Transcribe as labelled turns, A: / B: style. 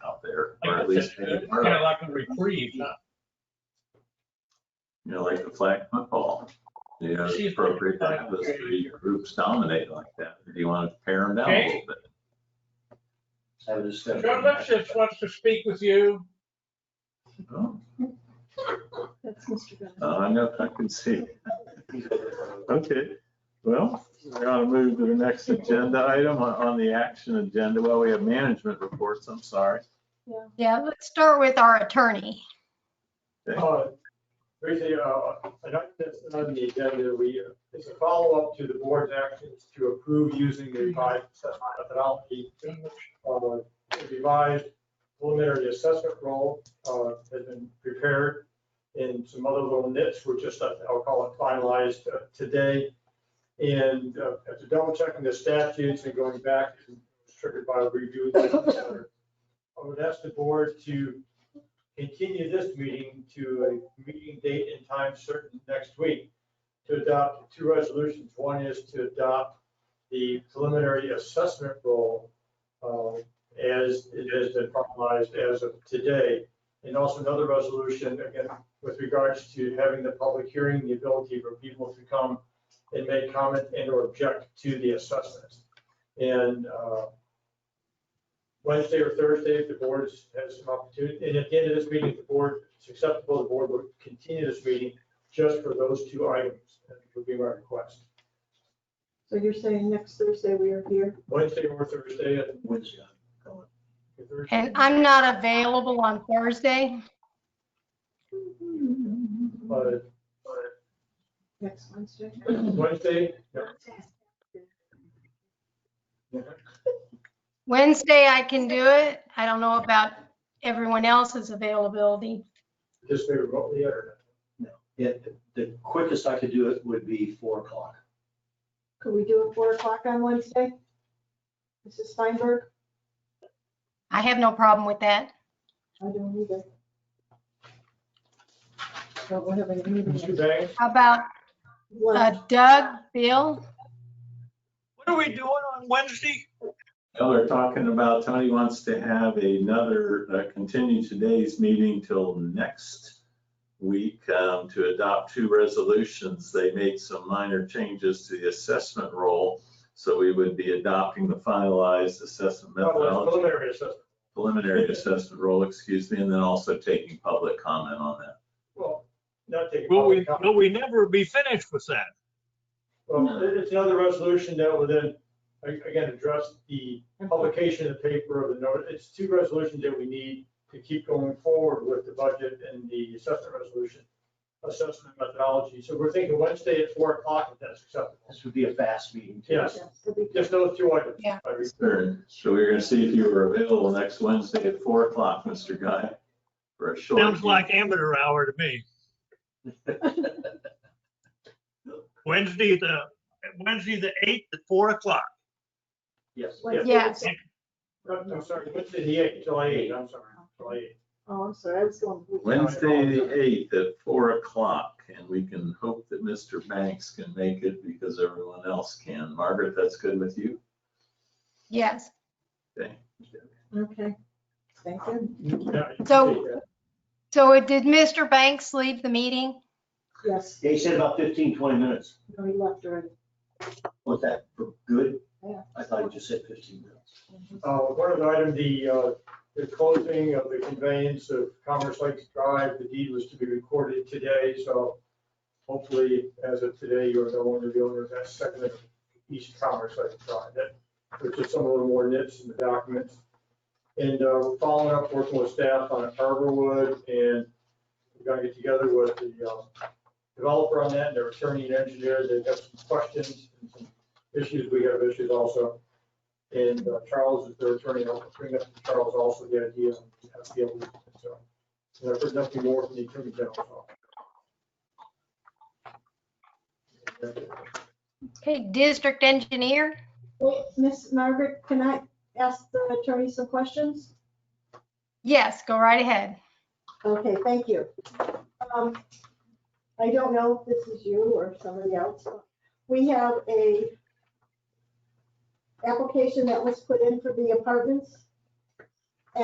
A: least,
B: uh, Kind
A: maybe
B: of
A: part of it,
B: like a reprieve, not
A: you know, like the flag football. You know, it's
B: She's-
A: appropriate to have those three groups dominate like that. If you want to pare them down a
B: Okay.
A: little bit.
C: Have a discussion.
B: John Lipsitz wants to speak with you.
A: Oh,
D: That's Mr. Bell.
A: I don't know if I can see. Okay, well, we're gonna move to the next agenda item on- on the action agenda. Well, we have management reports, I'm sorry.
E: Yeah, let's start with our attorney.
F: Uh, Basically, uh, an item that's not on the agenda, we, uh, it's a follow-up to the board's actions to approve using the revised assessment methodology. Uh, the Revised preliminary assessment role uh, has been prepared, and some other little nits were just, uh, I'll call it finalized uh, today. And uh, after double checking the statutes and going back, it was triggered by review. I would ask the board to continue this meeting to a meeting date and time certain next week to adopt two resolutions. One is to adopt the preliminary assessment role uh, as it has been finalized as of today. And also another resolution, again, with regards to having the public hearing, the ability for people to come and make comment and or object to the assessments. And uh, Wednesday or Thursday, if the board has- has some opportunity, and at the end of this meeting, if the board, it's acceptable, the board will continue this meeting just for those two items, that would be my request.
D: So you're saying next Thursday we are here?
F: Wednesday or Thursday, and
C: Wednesday.
F: Thursday.
E: And I'm not available on Thursday.
F: uh,
D: Next Wednesday?
F: Wednesday, yeah,
E: Wednesday I can do it. I don't know about everyone else's availability.
F: just maybe remotely, or
C: Yeah, the- the quickest I could do it would be four o'clock.
D: Could we do it four o'clock on Wednesday? Mrs. Steinberg?
E: I have no problem with that.
D: I don't either. Don't we have any meeting?
E: Mm-hmm.
F: Mr. Banks,
E: How about uh,
D: What?
E: Doug, Bill?
B: What are we doing on Wednesday?
A: Well, they're talking about Tony wants to have another, uh, continue today's meeting till next week um, to adopt two resolutions. They made some minor changes to the assessment role. So we would be adopting the finalized assessment
F: uh,
A: methodology,
F: preliminary assessment.
A: preliminary assessment role, excuse me, and then also taking public comment on that.
F: Well, not taking.
B: Will we,
F: public comment.
B: will we never be finished with that?
F: Well, it- it's another resolution that will then, a- again, address the publication of the paper of the notice. It's two resolutions that we need to keep going forward with the budget and the assessment resolution, assessment methodology. So we're thinking Wednesday at four o'clock, if that's acceptable.
C: This would be a fast meeting. too.
F: Yes. Just those two items.
E: Yeah.
F: I re-
A: Third, So we're gonna see if you were available next Wednesday at four o'clock, Mr. Guy, for a short.
B: Sounds like amateur hour to me. Wednesday, the, Wednesday, the eighth at four o'clock.
C: Yes.
D: Wednesday
E: Yeah.
D: is-
F: I'm I'm sorry, Wednesday, the eighth, July eighth, I'm sorry, July eighth.
D: Oh, I'm sorry, I was going.
A: Wednesday, the eighth at four o'clock, and we can hope that Mr. Banks can make it because everyone else can. Margaret, that's good with you?
E: Yes.
A: Okay.
D: Okay, thank you.
F: Yeah, you can
E: So-
F: take that.
E: So it- did Mr. Banks leave the meeting?
D: Yes,
C: Yeah, he said about 15, 20 minutes.
D: no, he left already.
C: Was that for good?
D: Yeah.
C: I thought he just said fifteen minutes.
F: Uh, One other item, the, uh, the closing of the conveyance of Commerce Lakes Drive, the deed was to be recorded today, so hopefully, as of today, you're no longer the owner of that second of East Commerce Lakes Drive. That, which is some of the more nits in the documents. And uh, following up, working with staff on Arborwood, and we're gonna get together with the um, developer on that, and their attorney and engineer, they've got some questions and some issues, we have issues also. And uh, Charles is their attorney, I'll bring up to Charles also the idea of how to deal with it, so. And I've heard nothing more from the attorney general. so. uh,
E: Okay, district engineer?
D: Wait, Miss Margaret, can I ask the attorney some questions?
E: Yes, go right ahead.
D: Okay, thank you. Um, I don't know if this is you or somebody else. but We have a application that was put in for the apartments